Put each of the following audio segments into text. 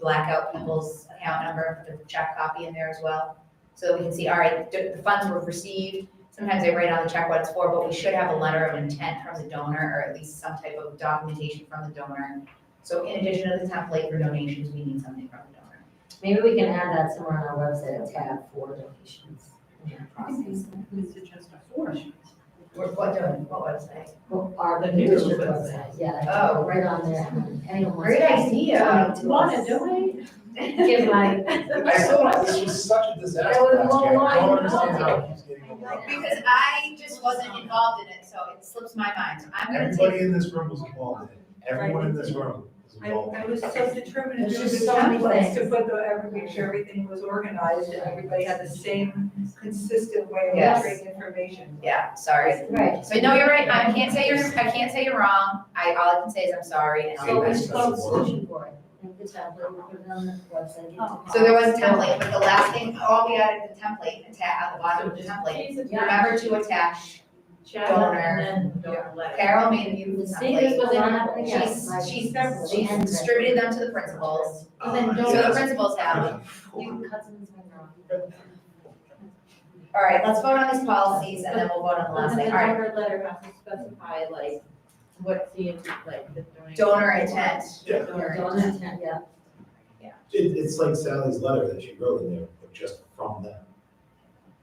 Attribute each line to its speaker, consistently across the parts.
Speaker 1: black out people's account number, put the check copy in there as well. So that we can see, all right, the the funds were received, sometimes they write on the check what it's for, but we should have a letter of intent from the donor or at least some type of documentation from the donor. So in addition to the template for donations, we need something from the donor.
Speaker 2: Maybe we can add that somewhere on our website, a tab for donations. in that
Speaker 3: Mm-hmm.
Speaker 2: process.
Speaker 4: Is it just a form?
Speaker 1: We're, what, don- what website?
Speaker 2: Well, Our
Speaker 4: The new
Speaker 2: district
Speaker 4: website.
Speaker 2: website, yeah.
Speaker 1: Oh.
Speaker 2: Right on there. Anyone wants
Speaker 1: Great
Speaker 2: to
Speaker 1: idea.
Speaker 2: donate to
Speaker 4: Wanna
Speaker 2: us.
Speaker 4: do it?
Speaker 2: Give my,
Speaker 5: I still, this was such a disaster
Speaker 2: That was
Speaker 5: last year, I
Speaker 2: long
Speaker 5: don't understand
Speaker 2: line.
Speaker 5: how it keeps getting overrun.
Speaker 1: Because I just wasn't involved in it, so it slips my mind, so I'm gonna
Speaker 5: Everybody
Speaker 1: take.
Speaker 5: in this room was involved in it, everyone in this room was
Speaker 4: I,
Speaker 5: involved.
Speaker 4: I was so determined to do
Speaker 2: There's
Speaker 4: the
Speaker 2: just so many
Speaker 4: templates, to
Speaker 2: things.
Speaker 4: put the, every, make sure everything was organized, and everybody had the same consistent way of
Speaker 1: Yes.
Speaker 4: entering information.
Speaker 1: Yeah, sorry.
Speaker 2: right.
Speaker 1: So no, you're right, I can't say you're, I can't say you're wrong, I, all I can say is I'm sorry and I'll.
Speaker 2: So we
Speaker 1: be
Speaker 2: just
Speaker 1: back.
Speaker 2: got a solution for it. And the tablet, we put it on the website. give it to
Speaker 1: So there was a template, but the last thing, all we added the template, attack on the bottom of the template.
Speaker 2: Yeah.
Speaker 1: Remember to attach,
Speaker 6: Donor.
Speaker 1: Carol made a beautiful
Speaker 2: See, this
Speaker 1: template.
Speaker 2: was not happening again.
Speaker 1: She's,
Speaker 2: Like,
Speaker 1: she's,
Speaker 2: several.
Speaker 1: she's
Speaker 2: And-
Speaker 1: distributed them to the principals,
Speaker 5: Oh,
Speaker 6: Then
Speaker 5: my
Speaker 1: so the
Speaker 5: God.
Speaker 1: principals have them.
Speaker 2: You cut someone's finger off.
Speaker 1: All right, let's vote on these policies and then we'll vote on the last
Speaker 6: And then
Speaker 1: thing,
Speaker 6: the
Speaker 1: all right,
Speaker 6: donor letter has to specify like what's the, like the
Speaker 1: donor
Speaker 6: donor.
Speaker 1: intent.
Speaker 5: Yeah.
Speaker 2: Yeah, don't intend, yeah.
Speaker 5: It, it's like Sally's letter that she wrote in there, but just from them.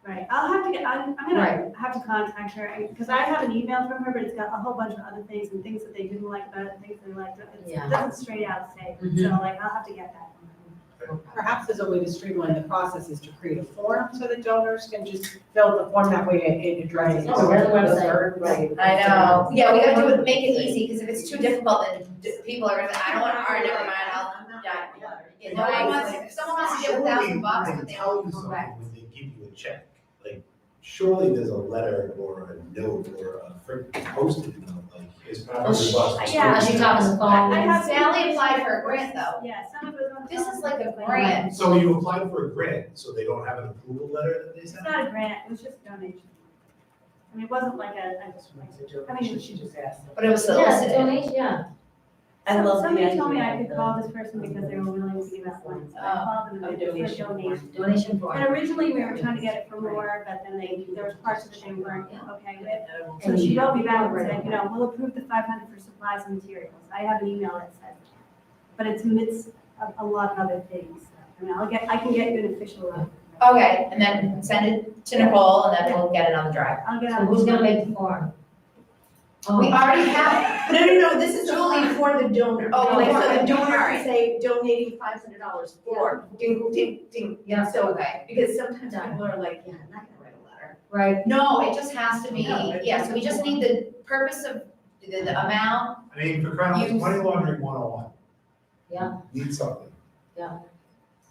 Speaker 7: Right, I'll have to get, I'm, I'm gonna have to contact her, because I have an email from her, but it's got a whole bunch of other things and things that they didn't like about it, and things they liked. about it.
Speaker 2: Yeah.
Speaker 7: It doesn't straight out say,
Speaker 1: Mm-hmm.
Speaker 7: so
Speaker 2: Mhm.
Speaker 7: like, I'll have to get that.
Speaker 3: Perhaps there's a way to streamline the process is to create a form so that donors can just fill the form that way it it addresses.
Speaker 2: Oh, we're the website, right.
Speaker 1: I know, yeah, we gotta do it, make it easy, because if it's too difficult, then d- people are gonna, say, I don't want, all right, never mind, I'll, yeah. You know, I want, if someone wants to give a thousand bucks, but they
Speaker 5: Surely
Speaker 1: all
Speaker 5: they tell you something
Speaker 1: correct.
Speaker 5: When they give you a check, like, surely there's a letter or a note or a freaking post-it note, like, it's part of the bus.
Speaker 7: Yeah.
Speaker 2: She talks on the phone.
Speaker 7: I have-
Speaker 1: Oh, Sally applied for a grant, though,
Speaker 7: Yeah, some of it was.
Speaker 1: this is like a grant,
Speaker 5: So you applied for a grant, so they don't have an approval letter that they
Speaker 7: It's
Speaker 5: sent?
Speaker 7: not a grant, it was just donation. I mean, it wasn't like a, I just, like,
Speaker 3: I mean, she just asked.
Speaker 1: but it was
Speaker 2: Yes,
Speaker 1: solicited.
Speaker 2: donation, yeah.
Speaker 6: I love the
Speaker 7: somebody told me
Speaker 6: idea
Speaker 7: I
Speaker 6: of
Speaker 7: could
Speaker 6: the-
Speaker 7: call this person because they were willing to give out one, so I
Speaker 1: Oh,
Speaker 7: called them
Speaker 6: a
Speaker 7: and they
Speaker 6: donation
Speaker 7: just said
Speaker 6: form.
Speaker 7: donation.
Speaker 2: Donation form.
Speaker 7: And originally, we were trying to get it from Laura, but then they, there was parts of it they weren't, okay, with. So she wrote me back and said, you know, we'll approve the five hundred for supplies and materials. I have an email that said, but it's amidst of a lot of other things. I mean, I'll get, I can get you an official, uh,
Speaker 6: Oh.
Speaker 1: Okay, and then send it to Nicole, and then we'll get it on the drive.
Speaker 7: I'll get
Speaker 2: So
Speaker 7: out.
Speaker 2: who's gonna make the form?
Speaker 1: We
Speaker 2: Oh,
Speaker 1: already have,
Speaker 6: No, no, no, this is only for the donor.
Speaker 1: Oh,
Speaker 6: Like,
Speaker 1: for
Speaker 6: so
Speaker 1: the
Speaker 6: the donor
Speaker 1: donor.
Speaker 6: can say donating five hundred dollars for ding, ding, ding.
Speaker 2: Yeah.
Speaker 6: So,
Speaker 1: okay,
Speaker 6: because sometimes people are like, yeah, I'm not gonna write a letter.
Speaker 2: right.
Speaker 1: no, it just has to be,
Speaker 3: No, it-
Speaker 1: yeah, so we just need the purpose of, the, the amount,
Speaker 5: I mean, for crying out loud,
Speaker 1: Use-
Speaker 5: money laundering one oh one.
Speaker 2: Yeah.
Speaker 5: Need something.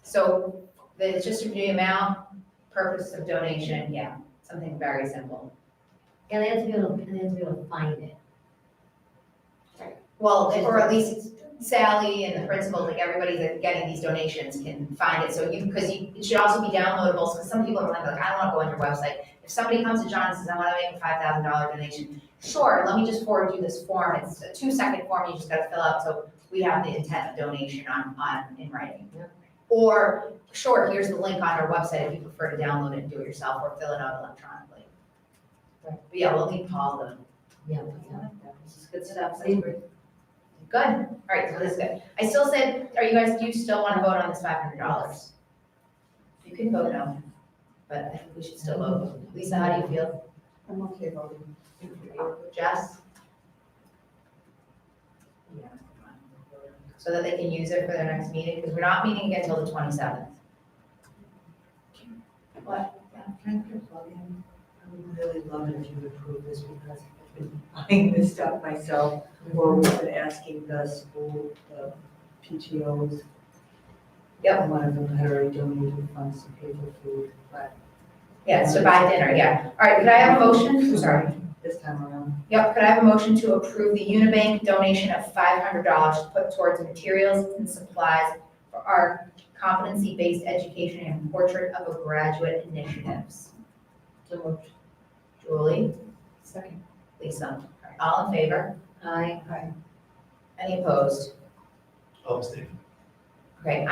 Speaker 1: so the, it's just the amount, purpose of donation, yeah, something very simple.
Speaker 2: Yeah, they have to be able, they have to be able to find it.
Speaker 1: Well, or at least Sally and the principals, like everybody that's getting these donations can find it, so you, because you, it should also be downloadable, because some people are like, like, I don't wanna go on your website. If somebody comes to John and says, I wanna make a five thousand dollar donation, sure, let me just forward you this form, it's a two second form, you just gotta fill out, so we have the intent of donation on, on, in writing.
Speaker 2: Yeah.
Speaker 1: Or, sure, here's the link on our website if you prefer to download it and do it yourself, or fill it out electronically.
Speaker 2: Right.
Speaker 1: But yeah, we'll need Paul though.
Speaker 2: Yeah, yeah. This is good stuff. See,
Speaker 1: Good, all right, so this is good. I still said, are you guys, do you still want to vote on this five hundred dollars? You can vote no, but I think we should still vote. Lisa, how do you feel?
Speaker 3: I'm okay voting.
Speaker 1: Jess? So that they can use it for their next meeting, because we're not meeting again until the twenty-seventh.
Speaker 3: I would really love it if you would approve this because I've been buying this stuff myself or we've been asking the school, the PTOs.
Speaker 1: Yep.
Speaker 3: One of them had already donated funds to pay for food, but
Speaker 1: Yeah, it's to buy dinner, yeah. All right, could I have a motion? Sorry.
Speaker 3: this time around,
Speaker 1: Yep, could I have a motion to approve the Unibank donation of five hundred dollars put towards materials and supplies for our competency-based education and portrait of a graduate initiatives?
Speaker 2: So moved.
Speaker 1: Julie? Second. Lisa? All in favor?
Speaker 2: Aye.
Speaker 1: Any opposed?
Speaker 5: Upstate.
Speaker 1: Okay,